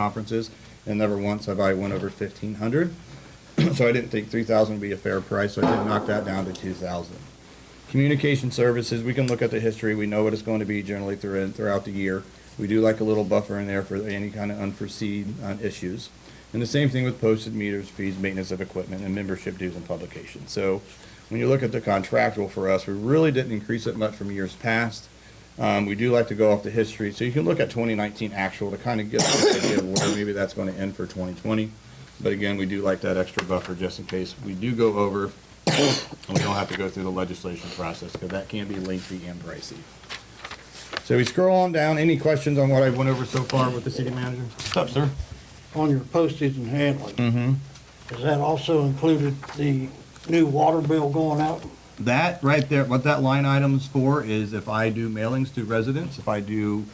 conferences, and never once have I went over fifteen hundred. So I didn't think three thousand would be a fair price, so I did knock that down to two thousand. Communication services, we can look at the history, we know what it's going to be generally through, throughout the year. We do like a little buffer in there for any kind of unforeseen, uh, issues. And the same thing with posted meters, fees, maintenance of equipment, and membership dues and publication. So when you look at the contractual for us, we really didn't increase it much from years past. Um, we do like to go off the history, so you can look at 2019 actual to kind of get an idea of where maybe that's going to end for 2020. But again, we do like that extra buffer just in case we do go over and we don't have to go through the legislation process because that can be lengthy and pricey. So we scroll on down. Any questions on what I went over so far with the city manager? Up, sir. on your postage and handling. Mm-hmm. Does that also included the new water bill going out? That right there, what that line item is for is if I do mailings to residents, if I do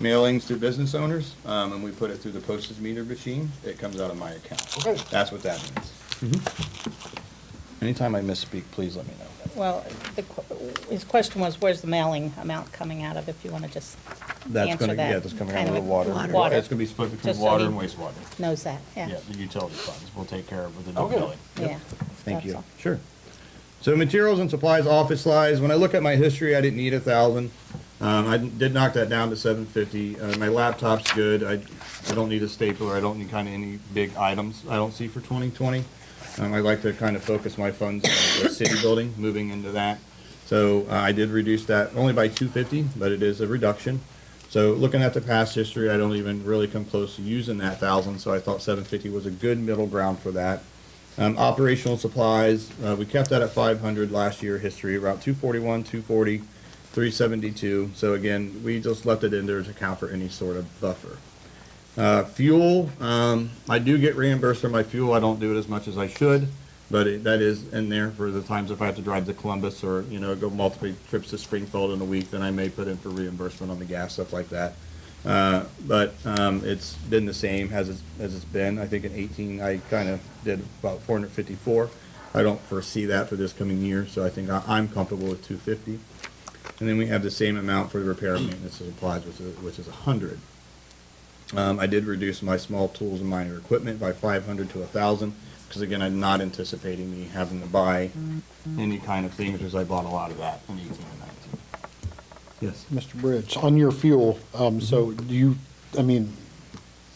mailings to business owners, um, and we put it through the postage meter machine, it comes out of my account. Okay. That's what that means. Anytime I misspeak, please let me know. Well, the, qu- his question was, where's the mailing amount coming out of, if you want to just, That's Answer gonna, yeah, that. that's coming out Kind of of the a- water. Water. It's gonna be split between Just so water he- and wastewater. knows that, Yeah, yeah. the utility funds, we'll take care of with the new Okay. billing. Yeah. Thank that's you. all. Sure. So materials and supplies, office supplies, when I look at my history, I didn't need a thousand. Um, I did knock that down to seven fifty. Uh, my laptop's good. I, I don't need a stapler. I don't need kind of any big items I don't see for twenty twenty. Um, I like to kind of focus my funds on the city building, moving into that. So uh, I did reduce that only by two fifty, but it is a reduction. So looking at the past history, I don't even really come close to using that thousand, so I thought seven fifty was a good middle ground for that. Um, operational supplies, uh, we kept that at five hundred last year history, around two forty-one, two forty, three seventy-two. So again, we just left it in there to account for any sort of buffer. Uh, fuel, um, I do get reimbursed for my fuel. I don't do it as much as I should, but it, that is in there for the times if I have to drive to Columbus or, you know, go multiple trips to Springfield in a week, then I may put in for reimbursement on the gas, stuff like that. Uh, but, um, it's been the same as it's, as it's been. I think in eighteen, I kind of did about four hundred fifty-four. I don't foresee that for this coming year, so I think I, I'm comfortable with two fifty. And then we have the same amount for the repair and maintenance and supplies, which is, which is a hundred. Um, I did reduce my small tools and minor equipment by five hundred to a thousand, because again, I'm not anticipating me having to buy any kind of things, because I bought a lot of that in eighteen and nineteen. Yes. Mr. Bridge, on your fuel, um, so do you, I mean,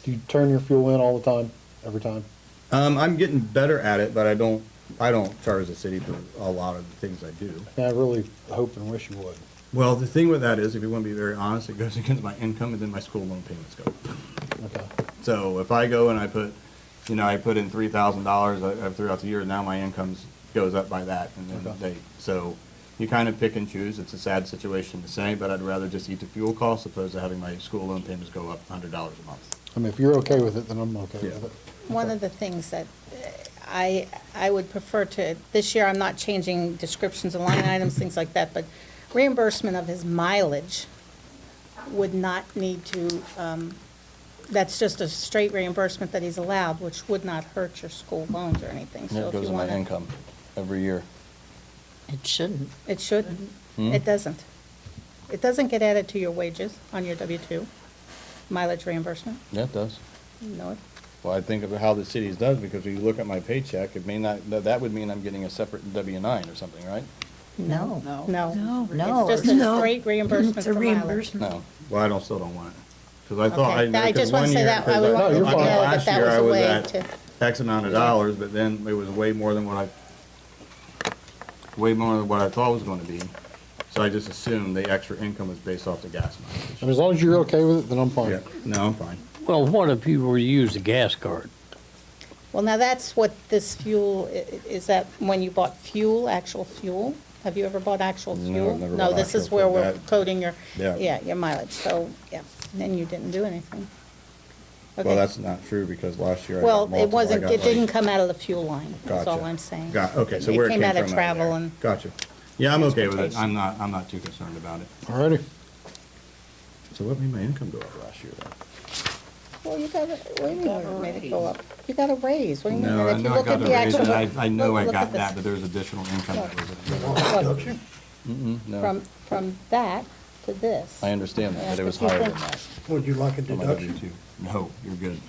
do you turn your fuel in all the time, every time? Um, I'm getting better at it, but I don't, I don't charge the city for a lot of the things I do. Yeah, I really hope and wish you would. Well, the thing with that is, if you want to be very honest, it goes against my income, and then my school loan payments go up. Okay. So if I go and I put, you know, I put in three thousand dollars uh, throughout the year, now my incomes goes up by that, and then Okay. they, so you kind of pick and choose. It's a sad situation to say, but I'd rather just eat the fuel costs opposed to having my school loan payments go up hundred dollars a month. I mean, if you're okay with it, then I'm okay Yeah. with it. One of the things that uh, I, I would prefer to, this year, I'm not changing descriptions and line items, things like that, but reimbursement of his mileage would not need to, um, that's just a straight reimbursement that he's allowed, which would not hurt your school loans or anything, so if you want to. every year. It shouldn't. It shouldn't. Hmm? It doesn't. It doesn't get added to your wages on your W-2, mileage reimbursement, Yeah, it does. no. it- Well, I think of how the city's does, because when you look at my paycheck, it may not, that- that would mean I'm getting a separate W nine or something, right? No. No. No. It's just a No. straight reimbursement It's a for mileage. reimbursement. Well, I don't, still don't want it, because I thought I. Okay, that- I because just want one to say year- that, I because would want No, you to you're know fine. that Last that year was I a was way at to, X amount of dollars, but then it was way more than what I, way more than what I thought it was gonna be. So I just assumed the extra income was based off the gas I mileage. mean, as long as you're okay with it, then I'm fine. Oh, Yeah, no, I'm fine. Well, what if you were to use a gas card? well, now that's what this fuel, i- i- is that when you bought fuel, actual fuel? Have you ever bought actual No, I've fuel? never bought No, this is actual where fuel. we're That- coding your, Yeah. yeah, your mileage, so, yeah, then you didn't do anything. Okay. Well, that's not true, because last year I got Well, it multiple. I wasn't, got it didn't like- come out of the fuel line, that's all Gotcha. I'm saying. Got, okay, so where it came out from, of I don't travel know. and, Gotcha. Yeah, I'm okay with it. I'm not, I'm not too concerned about it. Alrighty. So what made my income go up last year? then? well, you got, a- what do you mean, Got where a it made it raise. go up? You got a raise, what do you mean? No, And I if you know I look at got a the raise, and actual- I, I know I look- look got at that, this. but there's additional income that was. Look, From, from that to this. understand that, but it was higher than that Would you like a on my deduction? W-2. No, you're good.